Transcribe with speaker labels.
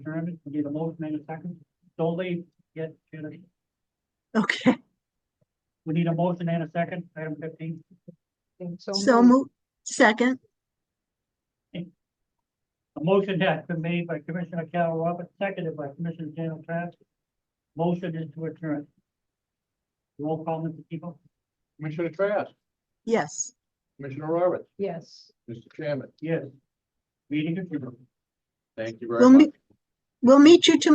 Speaker 1: adjournment, we need a motion in a second. Don't leave yet, Janice.
Speaker 2: Okay,
Speaker 1: We need a motion and a second, item fifteen.
Speaker 2: so move, second,
Speaker 1: A motion has been made by Commissioner Carol Roberts, seconded by Commissioner Daniel Trask. Motion is to adjourn. Roll call, Mr. Tebow?
Speaker 3: Commissioner Trask,
Speaker 2: yes.
Speaker 3: Commissioner Roberts,
Speaker 4: Yes.
Speaker 3: Mr. Chairman,
Speaker 1: Yes. Meeting adjourned.
Speaker 3: thank you
Speaker 2: We'll
Speaker 3: very
Speaker 2: meet-
Speaker 3: much.
Speaker 2: We'll meet you tomorrow